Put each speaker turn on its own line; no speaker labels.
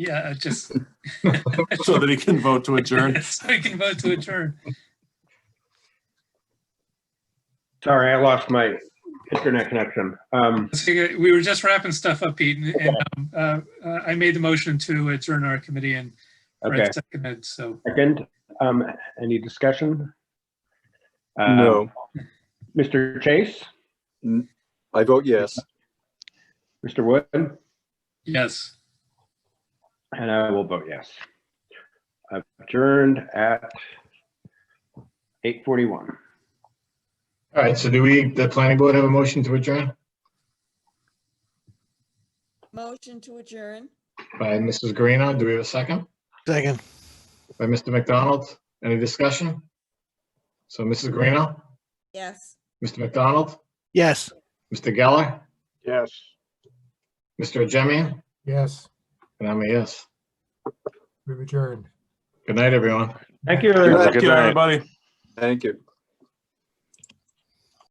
Yeah, it's just,
so that he can vote to adjourn.
so we can vote to adjourn.
Sorry, I lost my internet connection. Um,
So you- We were just wrapping stuff up, Pete, and- and um, uh, uh, I made the motion to adjourn our committee and
okay,
Fred seconded, so.
second, um, any discussion? Uh,
No,
Mr. Chase,
I vote yes.
Mr. Wood,
Yes,
and I will vote yes. Adjourned at eight forty-one.
All right, so do we, the planning board have a motion to adjourn
Motion to adjourn.
by Mrs. Guarino? Do we have a second?
Second.
By Mr. McDonald? Any discussion? So Mrs. Guarino,
Yes.
Mr. McDonald,
Yes.
Mr. Geller,
Yes.
Mr. Jemian,
Yes,
and I'm a yes.
we've adjourned.
Good night, everyone.
Thank you.
Thank you, everybody.
Thank you.